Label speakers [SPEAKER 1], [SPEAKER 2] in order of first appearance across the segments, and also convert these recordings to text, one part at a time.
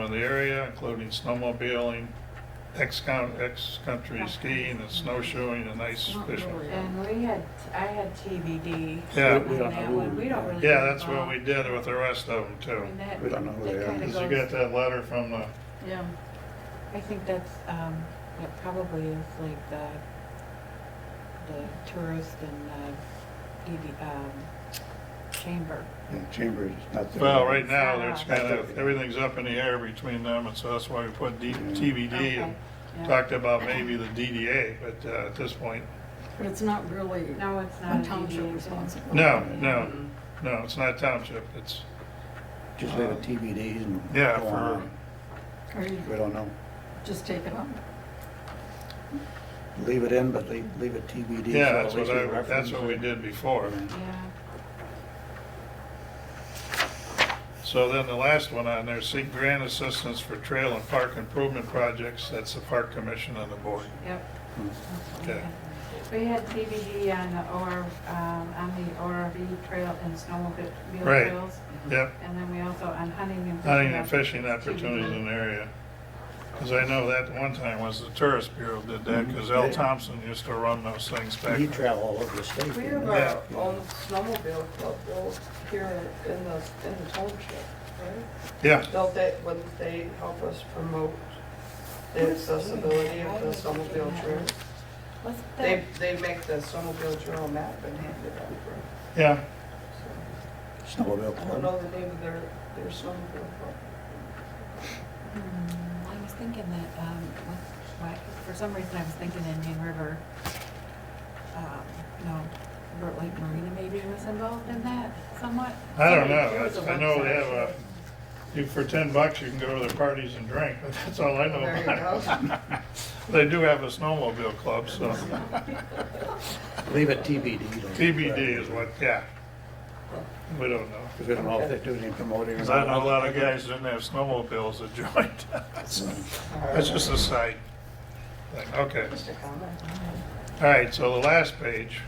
[SPEAKER 1] of the area, including snowmobiling, ex-con, ex-country skiing and snowshoeing and ice fishing.
[SPEAKER 2] And we had, I had TBD.
[SPEAKER 1] Yeah.
[SPEAKER 2] on that one. We don't really.
[SPEAKER 1] Yeah, that's what we did with the rest of them too.
[SPEAKER 3] We don't know who they are.
[SPEAKER 1] Cause you got that letter from the,
[SPEAKER 2] Yeah, I think that's, um, that probably is like the, the tourist and the, DD um, chamber.
[SPEAKER 3] Yeah, Chambers is not there.
[SPEAKER 1] well, right now, there's kind of, everything's up in the air between them, and so that's why we put D- TBD and
[SPEAKER 2] Okay, yeah.
[SPEAKER 1] talked about maybe the DDA, but uh, at this point,
[SPEAKER 4] But it's not really a
[SPEAKER 2] No, it's not a
[SPEAKER 4] township
[SPEAKER 2] DDA thing.
[SPEAKER 4] responsibility.
[SPEAKER 1] no, no, no, it's not township, it's,
[SPEAKER 3] Just leave it TBDs and.
[SPEAKER 1] Yeah,
[SPEAKER 3] go
[SPEAKER 1] for-
[SPEAKER 3] on.
[SPEAKER 4] Or you
[SPEAKER 3] We don't know.
[SPEAKER 4] just take it up?
[SPEAKER 3] Leave it in, but leave, leave it TBD. so
[SPEAKER 1] yeah,
[SPEAKER 3] at
[SPEAKER 1] that's what
[SPEAKER 3] least we
[SPEAKER 1] I, that's
[SPEAKER 3] reference
[SPEAKER 1] what we
[SPEAKER 3] it.
[SPEAKER 1] did before.
[SPEAKER 2] Yeah,
[SPEAKER 1] So then the last one on there, seek grant assistance for trail and park improvement projects, that's the park commission and the board.
[SPEAKER 2] yep.
[SPEAKER 3] Hmm.
[SPEAKER 2] That's what
[SPEAKER 1] Okay.
[SPEAKER 2] We had We had TBD on the OR, um, on the ORV trail and snowmobile
[SPEAKER 1] Right.
[SPEAKER 2] trails.
[SPEAKER 1] Yep,
[SPEAKER 2] And then we also on hunting and fishing.
[SPEAKER 1] hunting and fishing opportunities in the area. Because I know that one time was the tourist bureau did that, because L. Thompson used to run those things back.
[SPEAKER 3] You travel all over the state.
[SPEAKER 5] We
[SPEAKER 3] you
[SPEAKER 5] have
[SPEAKER 3] know.
[SPEAKER 1] Yeah.
[SPEAKER 5] our own snowmobile club though, here in the, in the township, right?
[SPEAKER 1] Yeah,
[SPEAKER 5] Don't they, wouldn't they help us promote the accessibility of the snowmobile trail?
[SPEAKER 2] What's
[SPEAKER 5] They,
[SPEAKER 2] that?
[SPEAKER 5] they make the snowmobile trail map and hand it out
[SPEAKER 1] yeah,
[SPEAKER 5] for
[SPEAKER 3] Snowmobile
[SPEAKER 5] us. I don't
[SPEAKER 3] club.
[SPEAKER 5] know the name of their, their snowmobile club.
[SPEAKER 2] Hmm, I was thinking that, um, what- why- for some reason, I was thinking Indian River, um, no, Burt Lake Marina maybe was involved in that somewhat.
[SPEAKER 1] I don't
[SPEAKER 2] There was
[SPEAKER 1] know,
[SPEAKER 2] a
[SPEAKER 1] I know they have
[SPEAKER 2] website.
[SPEAKER 1] a, you, for ten bucks, you can go to their parties and drink, but that's all I know
[SPEAKER 5] There you
[SPEAKER 1] about it. They do have a snowmobile club, so
[SPEAKER 3] Leave it TBD. though.
[SPEAKER 1] TBD is what, yeah. We don't know.
[SPEAKER 3] Because we don't know if they're doing any promoting. or
[SPEAKER 1] Because I know a
[SPEAKER 3] not.
[SPEAKER 1] lot of guys didn't have snowmobiles that joined. That's just a side thing, okay.
[SPEAKER 5] Just a comment.
[SPEAKER 1] All right, so the last page.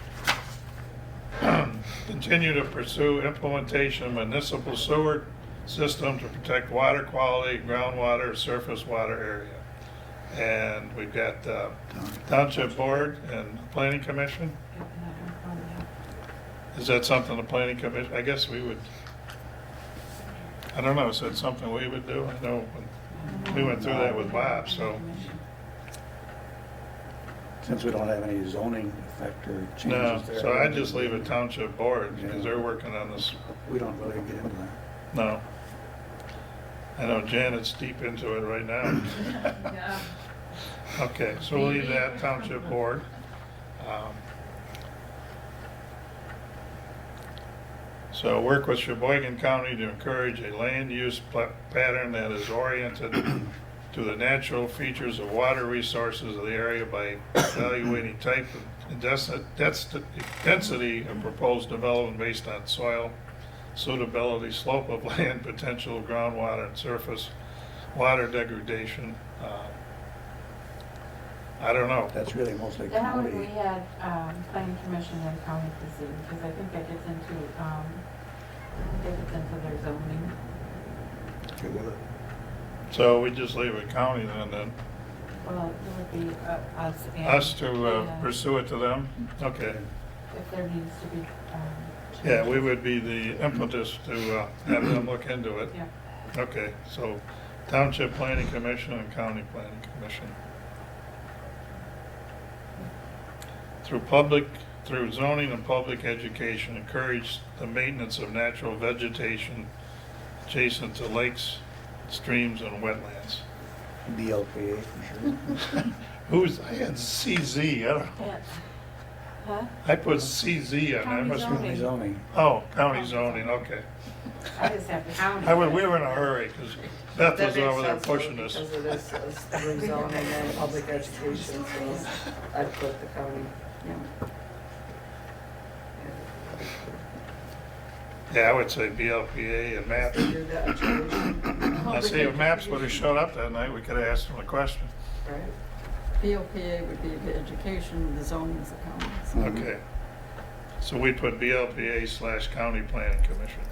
[SPEAKER 1] Continue to pursue implementation of municipal sewer system to protect water quality, groundwater, surface water area. And we've got uh, Township Board and Planning Commission.
[SPEAKER 2] Yeah, another one, yeah.
[SPEAKER 1] Is that something the planning commission, I guess we would, I don't know, is that something we would do? I know, when we went through that with Bob, so,
[SPEAKER 3] Since we don't have any zoning effect or
[SPEAKER 1] no,
[SPEAKER 3] changes there.
[SPEAKER 1] so I'd just leave it township board, because they're working on this,
[SPEAKER 3] We don't really get into that.
[SPEAKER 1] no. I know Janet's deep into it right now.
[SPEAKER 4] Yeah.
[SPEAKER 1] Okay, so we'll leave that township board. Um, So work with Sheboygan County to encourage a land use pla- pattern that is oriented to the natural features of water resources of the area by evaluating type and desi- desti- density of proposed development based on soil suitability, slope of land, potential groundwater and surface water degradation. Uh, I don't know.
[SPEAKER 3] That's really mostly
[SPEAKER 2] That one, we
[SPEAKER 3] county.
[SPEAKER 2] had, um, planning commission and county disease, because I think that gets into, um, that gets into their zoning.
[SPEAKER 3] Get with it.
[SPEAKER 1] So we just leave it county then, then,
[SPEAKER 2] Well, it would be uh, us and.
[SPEAKER 1] us to uh,
[SPEAKER 2] Yeah.
[SPEAKER 1] pursue it to them? Okay.
[SPEAKER 2] If there needs to be, um.
[SPEAKER 1] Yeah, we would be the impetus to uh, have them look into it.
[SPEAKER 2] Yeah.
[SPEAKER 1] Okay, so Township Planning Commission and County Planning Commission. Through public, through zoning and public education, encourage the maintenance of natural vegetation adjacent to lakes, streams, and wetlands.
[SPEAKER 3] BLPA for sure.
[SPEAKER 1] Who's, I had CZ, I don't know.
[SPEAKER 2] Huh?
[SPEAKER 1] I put CZ on, I
[SPEAKER 2] County
[SPEAKER 1] must,
[SPEAKER 3] County zoning.
[SPEAKER 1] oh, county zoning, okay.
[SPEAKER 2] I just have to count.
[SPEAKER 1] I was, we were in a hurry, because Beth
[SPEAKER 5] That
[SPEAKER 1] was
[SPEAKER 5] makes
[SPEAKER 1] over there
[SPEAKER 5] sense, though,
[SPEAKER 1] pushing us.
[SPEAKER 5] Because it is, it's rezoning and public education, so I put the county.
[SPEAKER 1] Yeah, I would say BLPA and MAP.
[SPEAKER 5] They do that education,
[SPEAKER 1] Now, see, if MAPS would have showed up that night, we could have asked them a question.
[SPEAKER 5] right?
[SPEAKER 4] BLPA would be the education, the zoning's the county.
[SPEAKER 3] Mhm.
[SPEAKER 1] Okay. So we put BLPA slash county planning commission.